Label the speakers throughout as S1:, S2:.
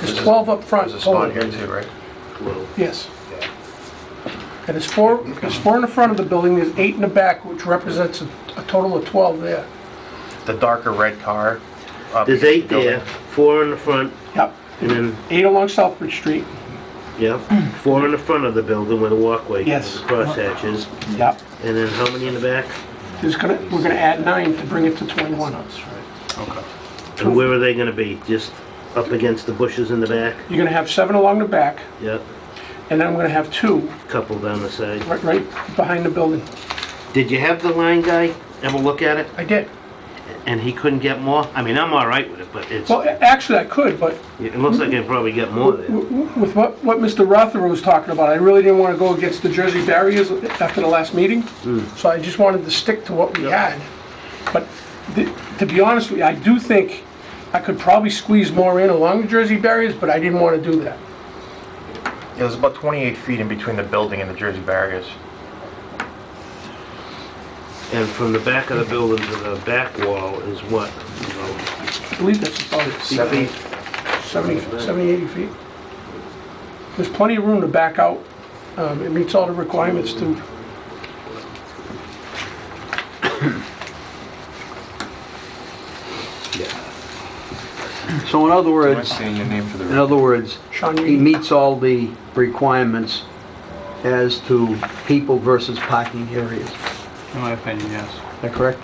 S1: There's 12 up front.
S2: There's a spot
S1: total.
S2: here too, right?
S3: Well,
S1: Yes.
S2: Yeah.
S1: And there's four, there's four in the front of the building, there's eight in the back, which represents a a total of 12 there.
S2: The darker red car. up
S3: There's eight
S2: the
S3: there,
S2: building.
S3: four in the front,
S1: Yep.
S3: and then,
S1: Eight along Southbridge Street.
S3: yeah, four in the front of the building where the walkway
S1: Yes.
S3: goes, the crosshatches,
S1: Yep.
S3: and then how many in the back?
S1: There's gonna, we're gonna add nine to bring it to 21.
S2: Okay.
S3: And where are they gonna be? Just up against the bushes in the back?
S1: You're gonna have seven along the back,
S3: Yep,
S1: and then I'm gonna have two
S3: couple down the side.
S1: right, right behind the building.
S3: Did you have the line guy ever look at it,
S1: I did.
S3: and he couldn't get more? I mean, I'm all right with it, but it's,
S1: Well, a- actually, I could, but
S3: it looks like he'd probably get more there.
S1: w- w- with what, what Mr. Rothero was talking about, I really didn't wanna go against the Jersey barriers after the last meeting, so I just wanted to stick to what we
S3: Yeah.
S1: had. But th- to be honest with you, I do think I could probably squeeze more in along the Jersey barriers, but I didn't wanna do that.
S2: It was about 28 feet in between the building and the Jersey barriers.
S3: And from the back of the building to the back wall is what? About
S1: I believe that's about it.
S2: Seventy,
S1: 70, 70, 80 feet. There's plenty of room to back out. Um, It meets all the requirements to,
S4: So in other
S5: Am I
S4: words,
S5: saying your name for the
S4: in other words,
S1: Sean,
S4: he
S1: you-
S4: meets all the requirements as to people versus parking areas. Is
S5: In my opinion, yes.
S4: that correct?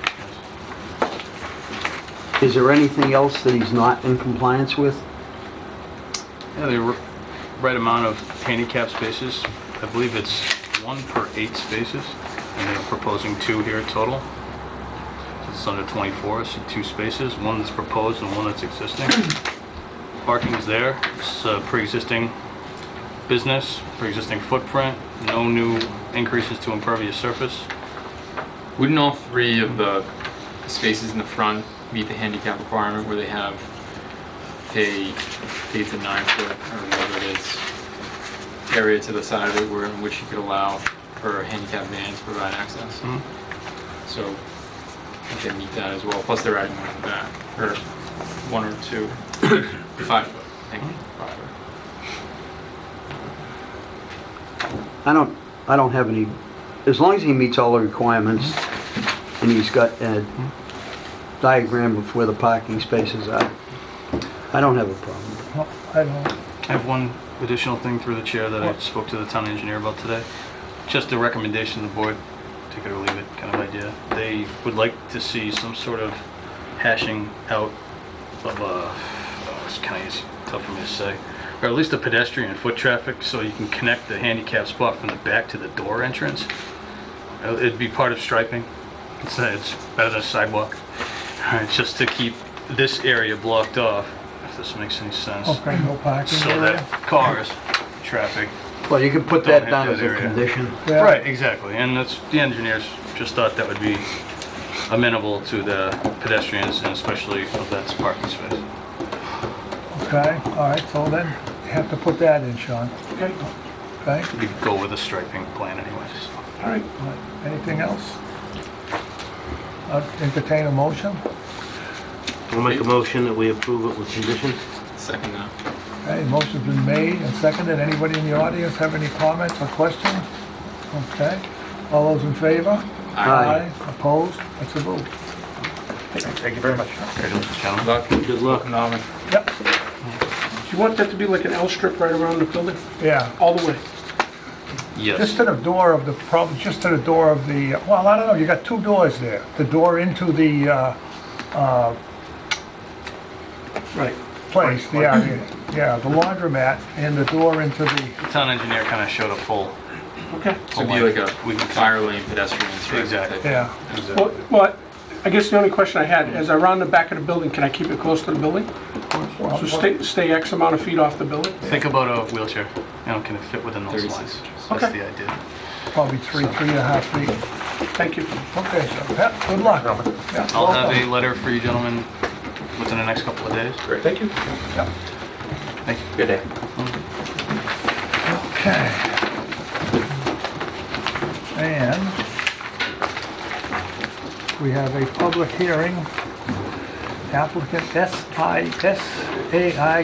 S4: Is there anything else that he's not in compliance with?
S5: Yeah, the r- right amount of handicap spaces, I believe it's one per eight spaces, and they're proposing two here total. So It's under 24, so two spaces, one that's proposed and one that's existing. Parking's there, it's a pre-existing business, pre-existing footprint, no new increases to impervious surface.
S6: Wouldn't all three of the spaces in the front meet the handicap requirement where they have a eight to nine foot or whatever it is area to the side of it where in which you could allow for a handicap van to provide access?
S5: Mhm.
S6: So I think they meet that as well, plus they're adding one in the back, or one or two, five foot, I think,
S5: Mm-hmm.
S6: five foot.
S4: I don't, I don't have any, as long as he meets all the requirements and he's got a diagram of where the parking spaces are, I don't have a problem.
S1: I don't know.
S5: I have one additional thing through the chair that I spoke to the town engineer about today. Just a recommendation to the board, take it or leave it kind of idea. They would like to see some sort of hashing out of, uh, oh, it's kind of tough for me to say, or at least the pedestrian and foot traffic, so you can connect the handicap spot from the back to the door entrance. Uh, It'd be part of striping. It's, uh, it's better than a sidewalk. All right, just to keep this area blocked off, if this makes any sense.
S7: Oh.
S1: Okay, no parking
S5: So that cars, traffic.
S4: Well, you can put
S5: Don't
S4: that
S5: hit
S4: down
S5: that
S4: as a
S5: area.
S4: condition.
S1: Yeah.
S5: Right, exactly, and that's, the engineers just thought that would be amenable to the pedestrians and especially of that parking space.
S7: Okay, all right, so then you have to put that in, Sean,
S1: Okay,
S7: okay?
S5: We could go with a striping plan anyways.
S1: all right.
S7: All right, Anything else? I'll Entertain a motion?
S3: I'll make a motion that we approve it with conditions.
S6: Second now.
S7: Okay, motion's been made and seconded. Anybody in the audience have any comments or questions? Okay, all those in favor?
S4: Aye.
S7: Opposed? That's a vote.
S2: thank you very much.
S5: Congratulations, gentlemen.
S6: Luck.
S3: Good luck.
S6: Phenomenal.
S7: Yep,
S1: Do you want that to be like an L strip right around the building,
S7: yeah.
S1: all the way?
S7: Just
S5: Yes,
S7: to the door of the, probably just to the door of the, well, I don't know, you got two doors there. The door into the uh,
S1: Right.
S7: place, the area, yeah, the laundromat and the door into the,
S5: the town engineer kind of showed a full,
S1: Okay.
S6: So it'd be like a
S5: Oh We can-
S6: fire lane pedestrian stripe.
S5: Exactly.
S6: type.
S7: yeah.
S1: Well, well, I guess the only question I had, as I round the back of the building, can I keep it close to the building? So stay, stay X amount of feet off the building?
S5: think about a wheelchair, you know, can it fit within those
S6: 36
S5: lines?
S6: inches.
S5: That's
S1: Okay.
S5: the idea.
S7: Probably three, three and a half feet.
S1: Thank you.
S7: Okay, so, yep, good luck. Yeah,
S5: I'll have
S7: welcome.
S5: a letter for you gentlemen within the next couple of days.
S2: Great, thank you.
S7: Yep.
S5: Thank you.
S2: Good day.
S7: Okay. And we have a public hearing. Applicant SI, SAI